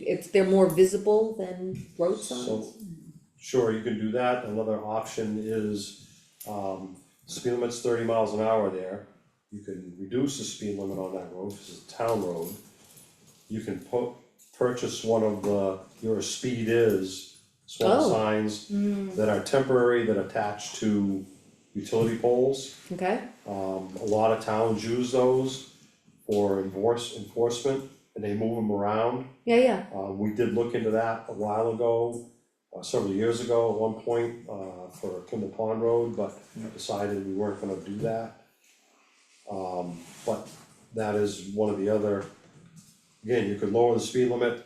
If they're more visible than road So, signs, sure, you can do that, another option is, um, speed limit's thirty miles an hour there. You can reduce the speed limit on that road, cause it's a town road. You can put, purchase one of the, your speed is Oh. swamp signs that are temporary, that attach to utility poles. okay? Um, a lot of towns use those for enforce, enforcement, and they move them around. Yeah, yeah, Um, we did look into that a while ago, uh, several years ago at one point, uh, for Kimball Pond Road, but decided we weren't gonna do that. Um, but that is one of the other, again, you could lower the speed limit,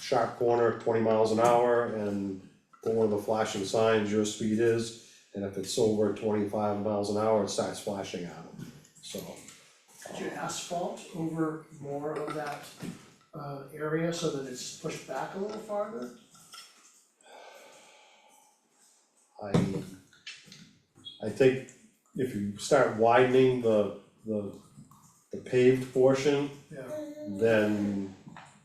sharp corner, twenty miles an hour, and put one of the flashing signs, your speed is, and if it's over twenty-five miles an hour, it starts flashing at them, so. Could you asphalt over more of that uh area so that it's pushed back a little farther? I, I think if you start widening the, the, the paved portion, Yeah, then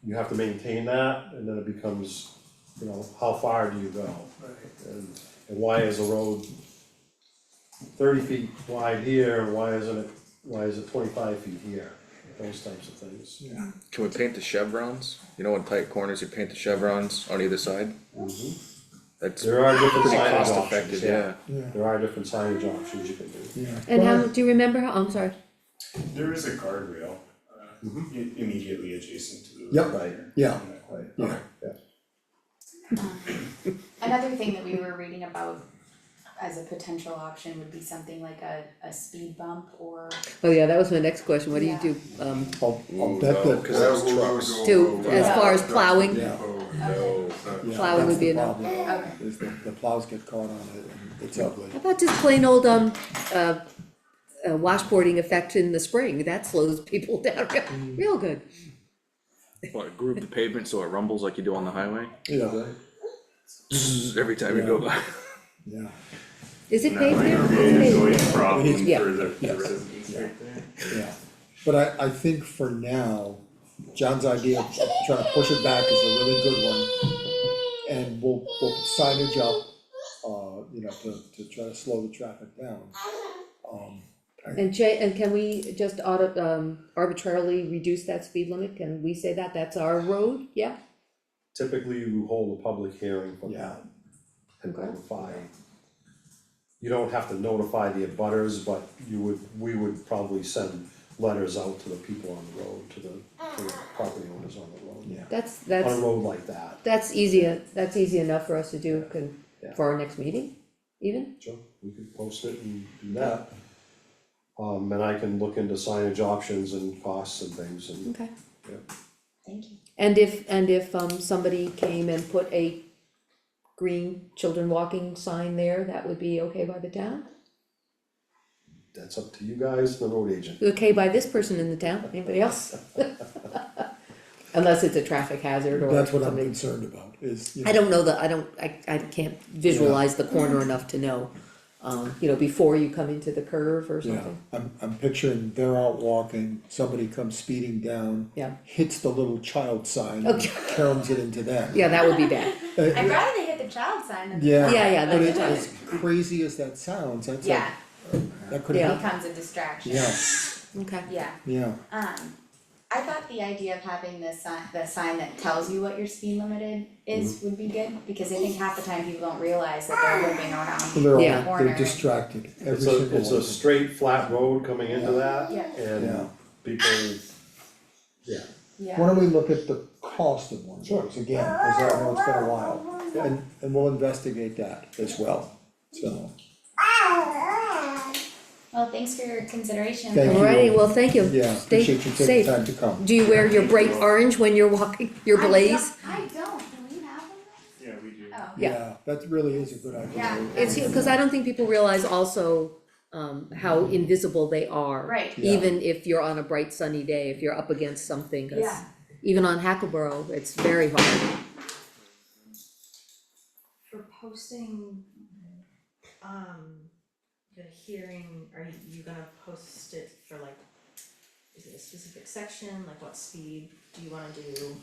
you have to maintain that, and then it becomes, you know, how far do you go? right, And, and why is a road thirty feet wide here, and why isn't it, why is it twenty-five feet here? Those types of things. yeah, Can we paint the chevrons? You know, in tight corners, you paint the chevrons on either side? Mhm. That's There are different pretty signage cost effective, options, yeah, yeah. yeah, there are different signage options you can do. yeah. and how, do you remember how, I'm sorry, There is a guardrail uh, Mhm. i- immediately adjacent to the. Mm-hmm. Yep. Right. Yeah. Right. Yeah. Another thing that we were reading about as a potential option would be something like a, a speed bump or, oh yeah, that was my next question, what do you do, um, Ooh, bet no, that- Cause that was trucks. to, as far as plowing? Yeah. Okay. Yeah, Plowing would be enough. That's the problem, okay, is the, the plows get caught on it and it's ugly. How about just plain old, um, uh, uh, washboarding effect in the spring, that slows people down real, real good. What, groove the pavement so it rumbles like you do on the highway? Yeah, Zzz, Every time you go by. yeah. Is it That paved might there? be a It's paved. noise problem Yeah. for the the Yes. residents Yeah. right there. Yeah, but I, I think for now, John's idea of trying to push it back is a really good one. And we'll, we'll put signage up, uh, you know, to, to try to slow the traffic down. Um, And Jay, and can we just auto, um, arbitrarily reduce that speed limit, can we say that, that's our road, yeah? typically you hold a public hearing for Yeah. that. And Okay. notify. You don't have to notify the abutters, but you would, we would probably send letters out to the people on the road, to the, to the property owners on the road. yeah, That's, On a that's, road like that, that's easy, that's easy enough for us to do, can, for our next meeting, even? Sure, we could post it and do that. Um, and I can look into signage options and costs and things and, Okay. yeah. thank you. And if, and if, um, somebody came and put a green children walking sign there, that would be okay by the town? that's up to you guys, the road agent. Okay by this person in the town, anybody else? Unless it's a traffic hazard or that's what I'm something. concerned about, is, you I know, don't know the, I don't, I, I can't visualize the corner enough to know, um, you know, before you come into the curve or yeah, something. I'm, I'm picturing they're out walking, somebody comes speeding down. Yeah. Hits the little child sign, and Okay. caroms it into Uh, that. Yeah, that would be bad. I'd rather they hit the child sign than. Yeah. Yeah, yeah, But the it, child. as crazy as that sounds, that's like, Yeah, that could Yeah. Uh, happen, becomes a distraction. yeah, Okay. Yeah, yeah, um, I thought the idea of having the sign, the sign that tells you what your speed limited is Mm-hmm. would be good, because I think half the time people don't realize that they're moving So around. they're Yeah. all, Corner. they're distracted, every It's single a, one. it's a straight, flat road coming into that. Yeah. Yeah. And people, yeah, Why Yeah, don't we look at the cost of one of Sure. those again, cause I know it's been a while, and, and we'll investigate that as well, so, well, thanks for your consideration. Thank you. Alrighty, well, thank you. yeah, Stay appreciate you taking safe. time to come. Do you wear your bright orange when you're walking, your blaze? I don't, I don't, do we have them? Yeah, we do. Oh. Yeah. That really is a good idea. Yeah. It's, cause I don't think people realize also, um, how invisible they are. Right. Yeah. Even if you're on a bright sunny day, if you're up against something, 'cause Yeah. even on Hackleboro, it's very hard. For posting, um, the hearing, are you gonna post it for like is it a specific section, like what speed do you wanna do?